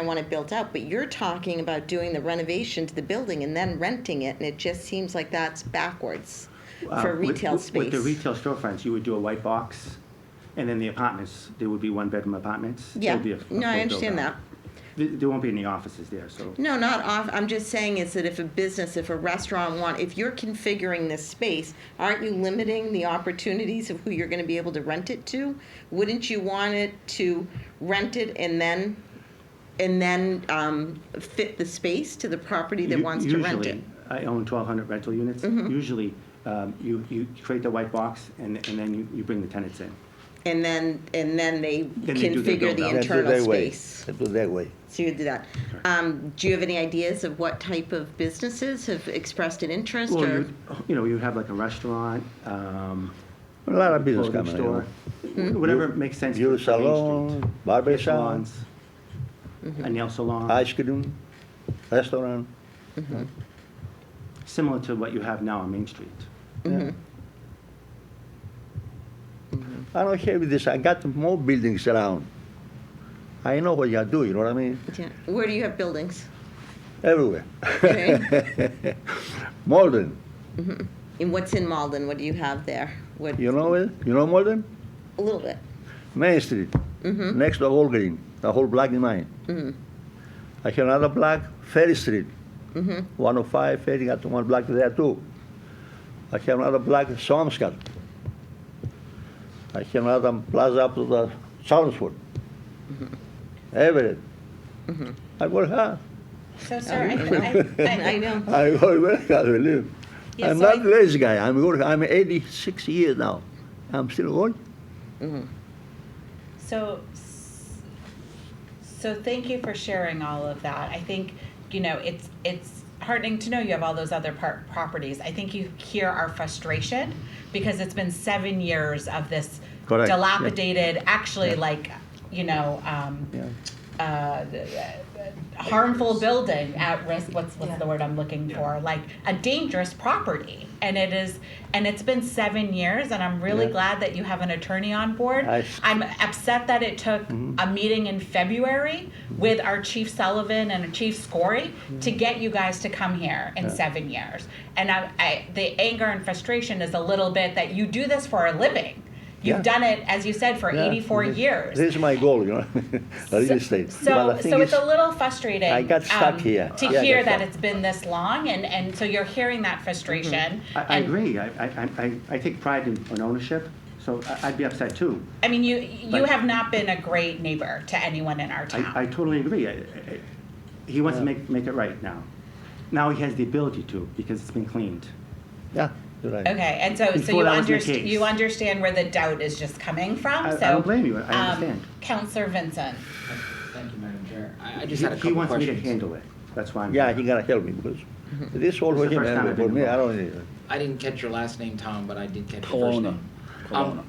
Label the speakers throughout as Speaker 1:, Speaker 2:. Speaker 1: I want it built out, but you're talking about doing the renovation to the building and then renting it, and it just seems like that's backwards
Speaker 2: Uh,
Speaker 1: for
Speaker 2: with-
Speaker 1: retail
Speaker 2: with-
Speaker 1: space.
Speaker 2: With the retail storefronts, you would do a white box, and then the apartments, there would be one-bedroom apartments. There
Speaker 1: Yeah,
Speaker 2: would be a- a
Speaker 1: no, I
Speaker 2: full
Speaker 1: understand that.
Speaker 2: build-out. There there won't be any offices there, so.
Speaker 1: No, not off, I'm just saying is that if a business, if a restaurant want, if you're configuring this space, aren't you limiting the opportunities of who you're gonna be able to rent it to? Wouldn't you want it to rent it and then, and then, um, fit the space to the property that
Speaker 2: u-
Speaker 1: wants to rent it? Mm-hmm.
Speaker 2: Usually, I own 1,200 rental units. Usually, um, you you create the white box, and and then you you bring the tenants in.
Speaker 1: And then, and then they
Speaker 2: Then they do their
Speaker 1: configure the
Speaker 2: build-out.
Speaker 3: Let's do it
Speaker 1: internal
Speaker 3: that way.
Speaker 1: space.
Speaker 3: Let's do it that way.
Speaker 1: So you do that. Um, do you have any ideas of what type of businesses have expressed an interest
Speaker 2: Well,
Speaker 1: or?
Speaker 2: you, you know, you have like a restaurant, um,
Speaker 3: A lot of business
Speaker 2: clothing
Speaker 3: coming
Speaker 2: store,
Speaker 3: in.
Speaker 1: Mm-hmm.
Speaker 2: whatever makes sense. for
Speaker 3: Beauty
Speaker 2: Main Street.
Speaker 3: salon, barber salon,
Speaker 2: Salons,
Speaker 1: Mm-hmm.
Speaker 2: a nail salon,
Speaker 3: ice cream, restaurant.
Speaker 2: similar to what you have now on Main Street.
Speaker 1: Mm-hmm.
Speaker 3: Yeah. I don't care with this. I got more buildings around. I know what you do. You know what I mean?
Speaker 1: Yeah. Where do you have buildings?
Speaker 3: Everywhere.
Speaker 1: Okay.
Speaker 3: Malden.
Speaker 1: and what's in Malden? What do you have there? What?
Speaker 3: You know it? You know Malden?
Speaker 1: A little bit.
Speaker 3: Main Street. Next to Whole Green. The whole block in mine. I have another block, Ferry Street. 105 Ferry got one block there too. I have another block, Somerset. I have another plaza up to the Chelmsford. Everett. I work hard.
Speaker 4: So, sir, I,
Speaker 1: I
Speaker 4: I, I,
Speaker 1: Oh, know.
Speaker 3: I work very hard, believe.
Speaker 4: Yeah,
Speaker 3: I'm
Speaker 4: so
Speaker 3: not
Speaker 4: I-
Speaker 3: lazy guy. I'm working. I'm 86 years now. I'm still working.
Speaker 4: so, s- so thank you for sharing all of that. I think, you know, it's, it's heartening to know you have all those other par- properties. I think you hear our frustration because it's been seven years of this
Speaker 3: Correct, yeah.
Speaker 4: dilapidated, actually like, you know, um,
Speaker 3: Yeah.
Speaker 4: uh, harmful building at risk what's what's the word i'm looking for like a dangerous property and it is and it's been seven years and i'm really
Speaker 3: Yeah.
Speaker 4: glad that you have an attorney on board
Speaker 3: I- Mm-hmm.
Speaker 4: i'm upset that it took a meeting in february with our chief sullivan and our chief scory
Speaker 3: Mm-hmm.
Speaker 4: to get you guys to come here in seven years and I, I the anger and frustration is a little bit that you do this for a living you've
Speaker 3: Yeah.
Speaker 4: done it as you said for
Speaker 3: Yeah,
Speaker 4: 84
Speaker 3: this-
Speaker 4: years
Speaker 3: This is my goal, you know, real estate.
Speaker 4: so,
Speaker 3: But the
Speaker 4: so
Speaker 3: thing
Speaker 4: it's
Speaker 3: is,
Speaker 4: a little frustrating. um,
Speaker 3: I got stuck here.
Speaker 4: To
Speaker 3: Yeah, I
Speaker 4: hear
Speaker 3: got
Speaker 4: that
Speaker 3: stuck.
Speaker 4: it's been this long, and, and so you're hearing that frustration.
Speaker 2: Mm-hmm. I, I
Speaker 4: and,
Speaker 2: agree, I, I, I, I take pride in, in ownership, so I, I'd be upset too.
Speaker 4: I mean, you you
Speaker 2: But-
Speaker 4: have not been a great neighbor to anyone in our town.
Speaker 2: I, I totally agree. I- I- He wants to make, make it right now. Now he has the ability to, because it's been cleaned.
Speaker 3: yeah, you're right.
Speaker 4: okay, and so so
Speaker 2: Before
Speaker 4: you
Speaker 2: that was the
Speaker 4: understand
Speaker 2: case.
Speaker 4: you understand where the doubt is just coming from.
Speaker 2: I- I
Speaker 4: so um,
Speaker 2: don't blame you. I understand.
Speaker 4: Counselor Vincent.
Speaker 5: Thank you, Madam Chair. I I
Speaker 2: He
Speaker 5: just had a
Speaker 2: he
Speaker 5: couple
Speaker 2: wants me to
Speaker 5: questions.
Speaker 2: handle it, that's why I'm.
Speaker 3: Yeah, he gotta help me because
Speaker 4: Mm-hmm.
Speaker 3: this all
Speaker 2: It's
Speaker 3: for
Speaker 2: the
Speaker 3: him,
Speaker 2: first time
Speaker 3: and
Speaker 2: I've
Speaker 3: for
Speaker 2: been
Speaker 3: me, I
Speaker 2: involved.
Speaker 3: don't need it.
Speaker 5: I didn't catch your last name, Tom, but I did catch your first
Speaker 6: Kelowna.
Speaker 5: name. Um,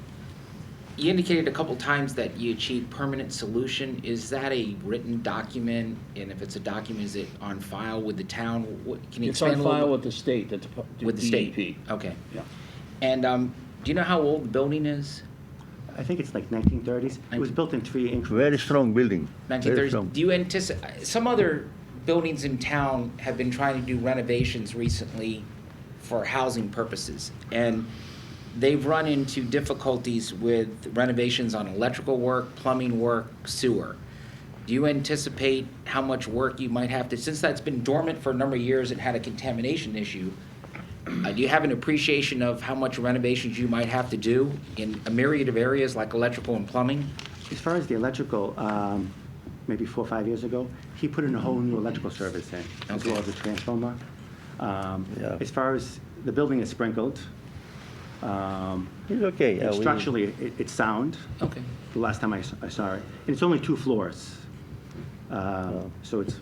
Speaker 5: You indicated a couple times that you achieved permanent solution. Is that a written document? And if it's a document, is it on file with the town? What- Can you
Speaker 6: It's
Speaker 5: expand a
Speaker 6: on
Speaker 5: little?
Speaker 6: file with
Speaker 5: bit?
Speaker 6: the state, the E Depa- the DEP.
Speaker 5: With the state? Okay.
Speaker 6: Yeah.
Speaker 5: And um, do you know how old the building is?
Speaker 2: I think it's like 1930s. It was built in three increments.
Speaker 3: Very strong building. Very
Speaker 5: 1930s.
Speaker 3: strong.
Speaker 5: Do you anticipate, some other buildings in town have been trying to do renovations recently for housing purposes, and they've run into difficulties with renovations on electrical work, plumbing work, sewer. Do you anticipate how much work you might have to, since that's been dormant for a number of years and had a contamination issue, uh, do you have an appreciation of how much renovations you might have to do in a myriad of areas like electrical and plumbing?
Speaker 2: As far as the electrical, um, maybe four or five years ago, he put in a whole new electrical service in, as
Speaker 5: Okay.
Speaker 2: well as a transformer. Um,
Speaker 3: Yeah.
Speaker 2: As far as, the building is sprinkled. Um,
Speaker 3: It's okay. yeah,
Speaker 2: and
Speaker 3: we-
Speaker 2: Structurally, it- it's sound.
Speaker 5: Okay.
Speaker 2: the last time I, s- I saw it. And it's only two floors. Uh, So it's,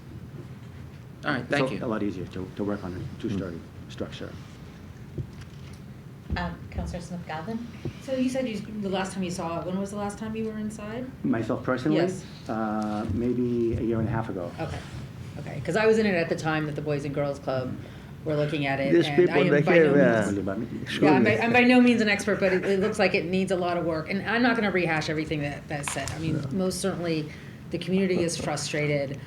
Speaker 5: All right, thank you.
Speaker 2: it's a lot easier to, to work on a two-story
Speaker 3: Mm.
Speaker 2: structure.
Speaker 4: Um, Counselor Smith Galvin.
Speaker 7: So you said you, the last time you saw it, when was the last time you were inside?
Speaker 2: Myself personally,
Speaker 7: Yes.
Speaker 2: uh, maybe a year and a half ago.
Speaker 5: Oh,
Speaker 7: Okay, okay, because I was in it at the time that the Boys and Girls Club were looking at it.
Speaker 3: These
Speaker 7: and
Speaker 3: people,
Speaker 7: I am
Speaker 3: they
Speaker 7: by
Speaker 3: have,
Speaker 7: no
Speaker 3: uh,
Speaker 7: means-
Speaker 2: Really about me.
Speaker 3: Excuse
Speaker 7: Yeah, I'm
Speaker 3: me.
Speaker 7: by, I'm by no means an expert, but it, it looks like it needs a lot of work, and I'm not gonna rehash everything that, that's said. I mean, most certainly, the community is frustrated.